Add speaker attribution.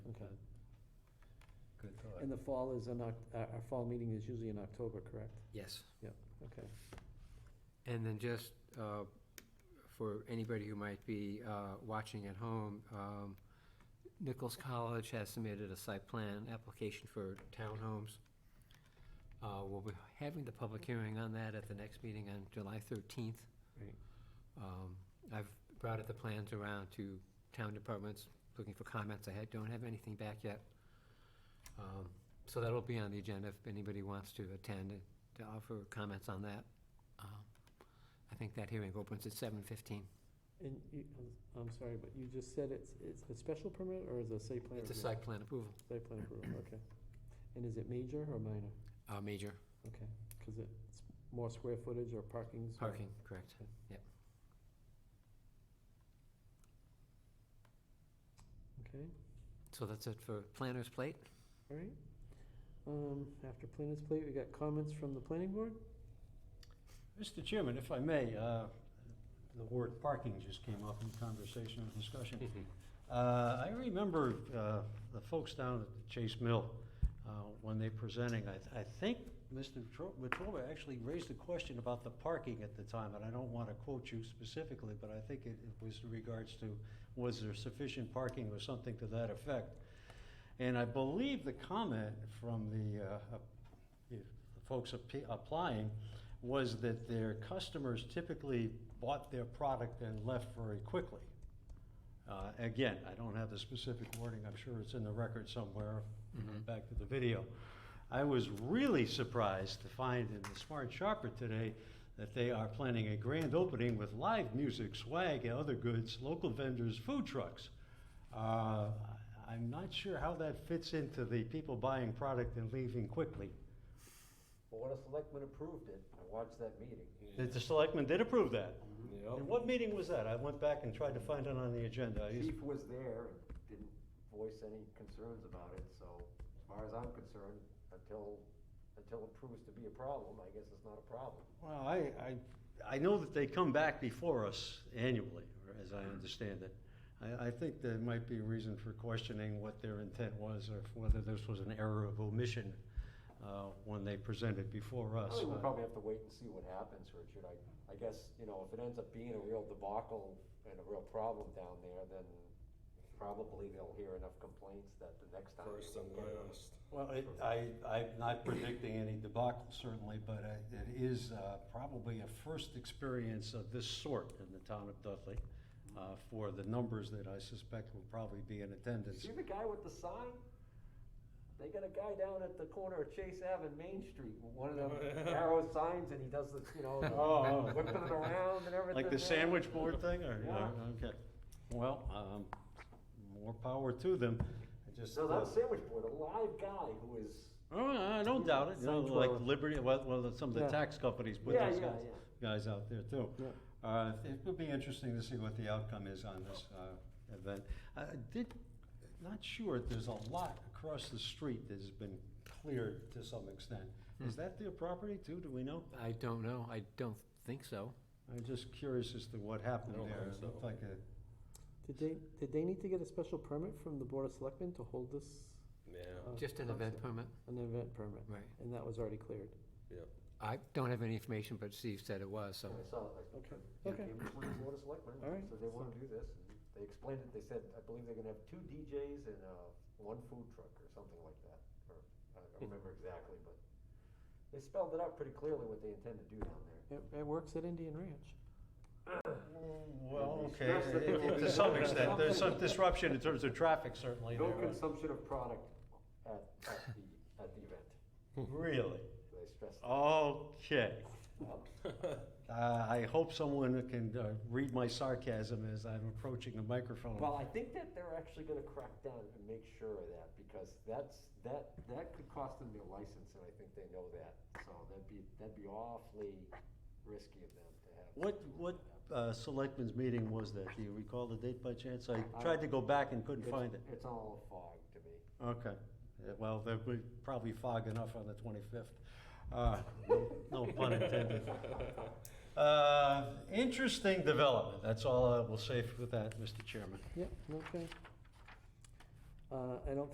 Speaker 1: And the fall is in Oc- our, our fall meeting is usually in October, correct?
Speaker 2: Yes.
Speaker 1: Okay.
Speaker 2: And then just uh, for anybody who might be uh, watching at home, um, Nichols College has submitted a site plan application for townhomes. Uh, We'll be having the public hearing on that at the next meeting on July 13th.
Speaker 1: Right.
Speaker 2: Um, I've brought the plans around to town departments, looking for comments. I had- don't have anything back yet. Um, So that'll be on the agenda if anybody wants to attend to offer comments on that. Um, I think that hearing opens at 7:15.
Speaker 1: And you, I'm sorry, but you just said it's, it's a special permit or is it a site plan?
Speaker 2: It's a
Speaker 1: review?
Speaker 2: site plan approval,
Speaker 1: Site plan approval, okay. And is it major or minor?
Speaker 2: Uh, major
Speaker 1: Okay, because it's more square footage or parking's?
Speaker 2: parking, correct.
Speaker 1: Okay,
Speaker 2: So that's it for planner's plate.
Speaker 1: all right. Um, after planners plate, we got comments from the planning board?
Speaker 3: Mr. Chairman, if I may, uh, the word parking just came up in conversation and
Speaker 4: Mm-hmm.
Speaker 3: discussion. Uh, I remember uh, the folks down at the Chase Mill, uh, when they presenting, I I think Mr. Tro- Wetruba actually raised a question about the parking at the time, and I don't want to quote you specifically, but I think it it was in regards to, was there sufficient parking or something to that effect? And I believe the comment from the uh, the folks appe- applying was that their customers typically bought their product and left very quickly. Uh, Again, I don't have the specific wording, I'm sure it's in the record somewhere,
Speaker 2: Mm-hmm.
Speaker 3: back to the video. I was really surprised to find in the Smart Shopper today that they are planning a grand opening with live music, swag, and other goods, local vendors, food trucks. Uh, I'm not sure how that fits into the people buying product and leaving quickly.
Speaker 4: Well, when a selectman approved it, I watched that meeting.
Speaker 3: The- The selectmen did approve that. And
Speaker 4: Yep.
Speaker 3: what meeting was that? I went back and tried to find it on the agenda. I just-
Speaker 4: Chief was there and didn't voice any concerns about it, so as far as I'm concerned, until, until it proves to be a problem, I guess it's not a problem.
Speaker 3: Well, I, I, I know that they come back before us annually, or as I understand it. I, I think there might be a reason for questioning what their intent was or if- whether this was an error of omission uh, when they presented before
Speaker 4: I
Speaker 3: us.
Speaker 4: think we'll probably have to wait and see what happens, Richard. I, I guess, you know, if it ends up being a real debacle and a real problem down there, then probably they'll hear enough complaints that the next time.
Speaker 5: First and last.
Speaker 3: Well, it, I, I'm not predicting any debacle certainly, but uh, it is uh, probably a first experience of this sort in the town of Dudley uh, for the numbers that I suspect will probably be in attendance.
Speaker 4: See the guy with the sign? They got a guy down at the corner of Chase Ave and Main Street, with one of them arrow signs, and he does the, you know,
Speaker 3: Oh, oh.
Speaker 4: whipping it around and everything.
Speaker 3: Like the sandwich board thing or,
Speaker 4: Yeah.
Speaker 3: okay. Well, um, more power to them. I just.
Speaker 4: No,
Speaker 3: uh,
Speaker 4: not a sandwich board, a live guy who is,
Speaker 3: Oh, I don't doubt it, you know,
Speaker 1: Signs
Speaker 3: like
Speaker 5: uh,
Speaker 1: were-
Speaker 3: Liberty, well, well, some of
Speaker 1: Yeah.
Speaker 3: the tax companies put
Speaker 4: Yeah,
Speaker 3: those
Speaker 4: yeah,
Speaker 3: guys,
Speaker 4: yeah.
Speaker 3: guys out there too.
Speaker 1: Yeah.
Speaker 3: Uh, it would be interesting to see what the outcome is on this, uh, event. I did, not sure, there's a lot across the street that has been cleared to some extent. Is
Speaker 5: Hmm.
Speaker 3: that their property too, do we know?
Speaker 2: I don't know, I don't think so.
Speaker 3: I'm just curious as to what happened
Speaker 5: I don't
Speaker 3: there.
Speaker 5: think
Speaker 3: It
Speaker 5: so.
Speaker 3: looked like a,
Speaker 1: Did they, did they need to get a special permit from the board of selectmen to hold this,
Speaker 5: Yeah,
Speaker 1: Oh,
Speaker 2: Just an event permit,
Speaker 1: an event permit?
Speaker 2: right.
Speaker 1: And that was already cleared?
Speaker 5: yep.
Speaker 2: I don't have any information, but Steve said it was, so.
Speaker 4: I saw, it,
Speaker 1: Okay,
Speaker 4: I
Speaker 1: okay.
Speaker 4: came before the board of selectmen,
Speaker 1: All right,
Speaker 4: so they
Speaker 1: so-
Speaker 4: want to do this. and They explained it, they said, I believe they're gonna have two DJs and, uh, one food truck or something like that, or, I don't remember exactly, but they spelled it out pretty clearly what they intend to do down there.
Speaker 1: It, it works at Indian Ranch.
Speaker 3: well, okay,
Speaker 4: Yes, that there will be
Speaker 3: to some
Speaker 4: some
Speaker 3: extent, there's some
Speaker 4: disruption.
Speaker 3: disruption in terms of traffic certainly
Speaker 4: No
Speaker 3: there.
Speaker 4: consumption of product at, at the, at the event,
Speaker 3: Really?
Speaker 4: they stressed.
Speaker 3: Okay.
Speaker 4: Well,
Speaker 3: Uh, I hope someone can uh, read my sarcasm as I'm approaching the microphone.
Speaker 4: Well, I think that they're actually gonna crack down and make sure of that, because that's, that, that could cost them their license, and I think they know that. So that'd be, that'd be awfully risky of them to have.
Speaker 3: What, what uh, selectmen's meeting was that? Do you recall the date by chance? I tried to go back and couldn't
Speaker 4: It's-
Speaker 3: find it.
Speaker 4: It's all a fog to me.
Speaker 3: Okay. Uh, Well, there will probably fog enough on the 25th. Uh, no- No pun intended. Uh, Interesting development. That's all I will say for that, Mr. Chairman.
Speaker 1: Yep, okay. Uh, I don't